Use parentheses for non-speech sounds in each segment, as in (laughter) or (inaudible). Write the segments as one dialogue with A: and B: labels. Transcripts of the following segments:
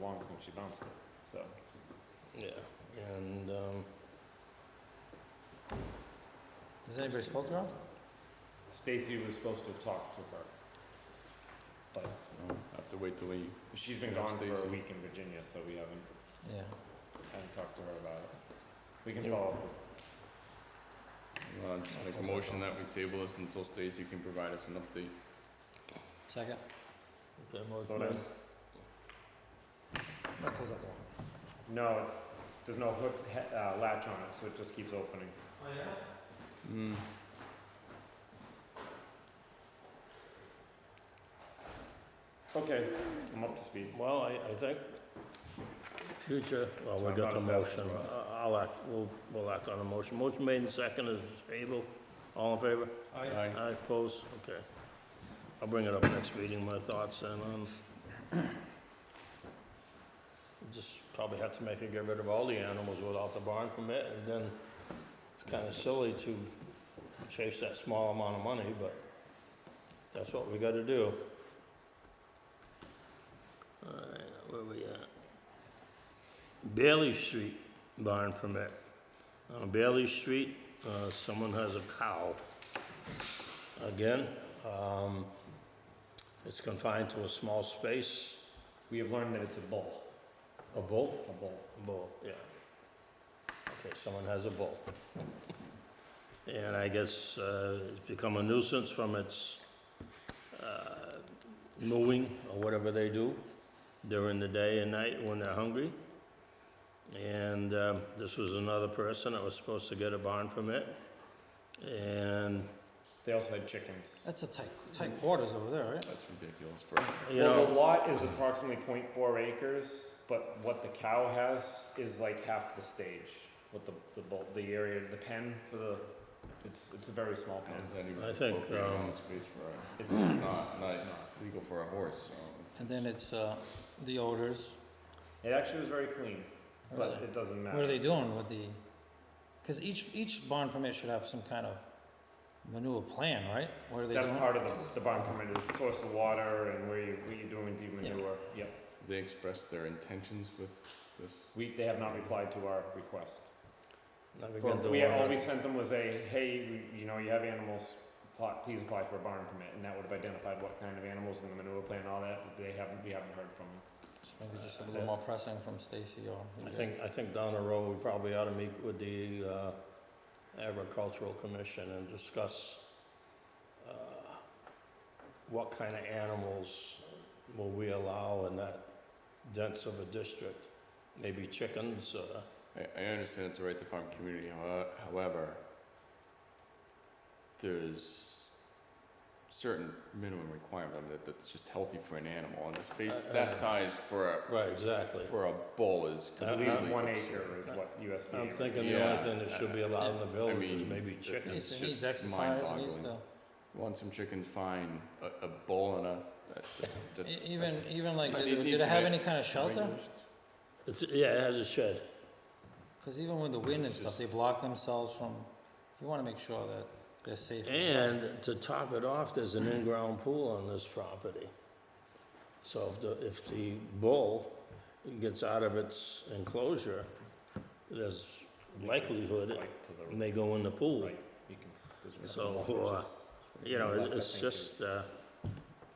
A: long since she bounced it, so.
B: Yeah, and, um, has anybody spoke to her?
A: Stacy was supposed to have talked to her. But
C: Have to wait till we,
A: she's been
C: Yeah,
A: gone for a
C: Stacy.
A: week in Virginia, so we haven't,
B: Yeah,
A: haven't talked to her about it. We can
B: Yeah.
A: follow up with,
C: uh, just make a motion that we table this until Stacy can provide us an update.
B: second. Okay, more-
A: so there's,
B: I'm gonna close that door.
A: no, there's no hook, he- uh, latch on it, so it just keeps opening.
B: Hmm.
C: Mm.
A: Okay, I'm up to speed.
B: Well, I, I think future, well, we
A: I'm
B: got
A: not
B: the
A: as fast as
B: motion.
A: Ross.
B: I- I'll act, we'll, we'll act on the motion. Motion made and second is able. All in favor?
C: Aye.
B: I oppose, okay. I'll bring it up next meeting, my thoughts, and, um, just probably have to make it get rid of all the animals without the barn permit, and then it's kinda silly to chase that small amount of money, but that's what we gotta do. Alright, where we at? Bailey Street barn permit. On Bailey Street, uh, someone has a cow again. Um, it's confined to a small space,
A: We have learned that it's a bull,
B: a bull,
A: a bull.
B: a bull, yeah. Okay, someone has a bull. And I guess, uh, it's become a nuisance from its, uh, mooing or whatever they do during the day and night when they're hungry. And, um, this was another person that was supposed to get a barn permit. And,
A: They also had chickens.
D: That's a tight, tight quarters over there, right?
C: That's ridiculous for,
B: you know.
A: Well, the lot is approximately 0.4 acres, but what the cow has is like half the stage. What the, the, bull- the area, the pen for the, it's, it's a very small pen.
C: is that even
B: I think,
C: appropriate amount
B: um,
C: of space for
A: It's
C: a, not, not
A: it's not.
C: legal for a horse, Um, so.
D: And then it's, uh, the odors.
A: It actually was very clean, but
D: Really?
A: it doesn't matter.
D: What are they doing with the, cause each, each barn permit should have some kind of manure plan, right? What are they
A: That's
D: doing?
A: part of the, the barn permit, is the source of water and where you, what you're doing with the manure. Yep.
C: They expressed their intentions with this,
A: We, they have not replied to our request.
B: Now we
A: For-
B: got the
A: We,
B: one
A: all
B: that-
A: we sent them was a, hey, we- you know, you have animals, pl- please apply for a barn permit, and that would have identified what kind of animals and the manure plan and all that, they haven't, we haven't heard from them.
D: Maybe just a little more pressing from Stacy or.
B: I think, I think down the road, we probably ought to meet with the uh, agricultural commission and discuss uh, what kind of animals will we allow in that dense of a district? Maybe chickens, uh,
C: I, I understand it's a right to farm community, howe- however, there's certain minimum requirement that, that's just healthy for an animal, and the space,
B: Uh, uh,
C: that size for a,
B: right, exactly.
C: for a bull is
B: I-
A: I
C: completely
A: believe one
C: absurd.
A: acre is what USDA.
B: I'm thinking the
C: Yeah.
B: only thing that should be allowed in the
C: I
B: village is
C: mean,
B: maybe
C: it's
B: chickens.
D: Needs,
C: It's
D: it needs
C: just
D: exercise, it needs to,
C: mind-boggling. Want some chickens, fine, a, a bull and a, that-
D: e-
C: that- that's. (laughs)
D: even, even like,
C: But it
D: did, did
C: needs
D: it
C: to
D: have
C: be
D: any kind of shelter?
C: regulations.
B: It's, yeah, it has a shed.
D: Cause even with the wind and
C: It's
D: stuff,
C: just-
D: they block themselves from, you wanna make sure that they're safe. as well.
B: And to top it off, there's an in-ground pool on this property. So if the, if the bull gets out of its enclosure, there's likelihood it
A: To
B: may go in the
A: the
B: pool.
A: right, you can, s- there's a
B: So,
A: couple
B: uh,
A: of ditches.
B: you know, it's-
A: Left, I
B: it's
A: think,
B: just,
A: is
B: uh,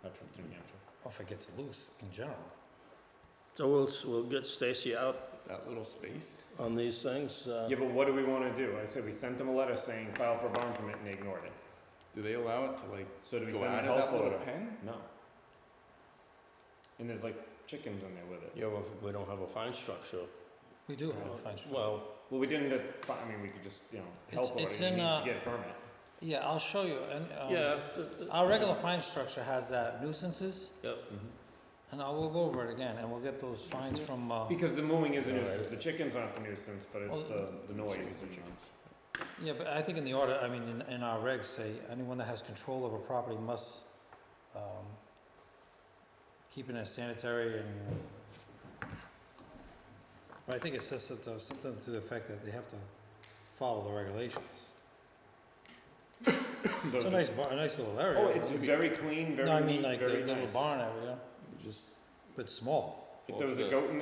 A: a trip to New Hampshire.
D: Or if it gets loose in general.
B: So we'll, s- we'll get Stacy out
C: That little space?
B: on these things. uh,
A: Yeah, but what do we wanna do? I said, we sent them a letter saying file for a barn permit and they ignored it.
C: Do they allow it to like
A: So do we
C: go
A: send
C: out
A: a health
C: of that little
A: order?
C: pen?
A: No. And there's like chickens in there with it.
B: Yeah, well, we don't have a fine structure.
D: We do have a function.
B: Well,
A: Well, we didn't, get fi- I mean, we could just, you know, help
D: It's-
A: order,
D: it's
A: you
D: in,
A: need to
D: uh,
A: get permit.
D: Yeah, I'll show you, and, um.
B: yeah. th- th-
D: Our regular fine structure has that nuisances,
B: Yep.
D: and I will go over it again, and we'll get those fines from, uh,
A: Because the mooing is a
B: Alright.
A: nuisance, the chickens aren't the nuisance, but it's
D: Well,
A: the, the noise.
C: Chickens are
A: and the-
C: chickens.
D: yeah, but I think in the order, I mean, in, in our regs say, anyone that has control over property must, um, keep it as sanitary and, but I think it says that, uh, something to the effect that they have to follow the regulations.
A: So
D: It's a
A: uh, the-
D: nice bar, a nice little area.
A: Oh, it's very clean, very
D: No, I mean,
A: neat,
D: like, the
A: very
D: little
A: nice.
D: barn area,
C: Just
D: but small.
A: If there was a
C: Well, the-
A: goat in